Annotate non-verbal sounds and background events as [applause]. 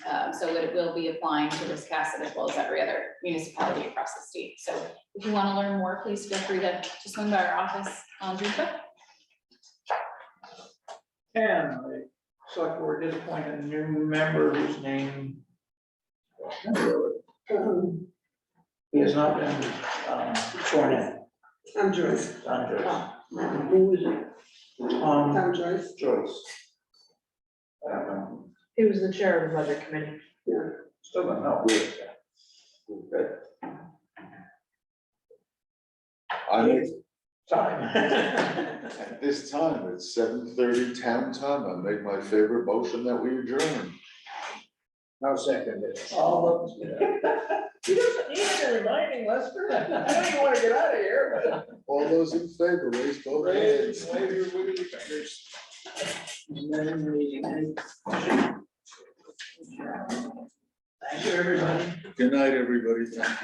Um, so that it will be applying to Wiscasset as well as every other municipality across the state. So if you want to learn more, please feel free to just swing by our office on June fifth. And the select board did appoint a new member whose name. He has not been um, sworn in, I'm Joyce. Don Joyce. Who is it? Um, I'm Joyce. Joyce. I don't know. He was the chair of the budget committee. Still don't know. Good. I make, [laughs] Time. at this time, it's seven thirty town time, I make my favorite motion that we adjourn. Now second it. All of, [laughs] he doesn't need any reminding, Lester. I know you want to get out of here, but. All those in favor, raise both hands. Wave your wiggly fingers. Thank you, everybody. Good night, everybody. Thank you.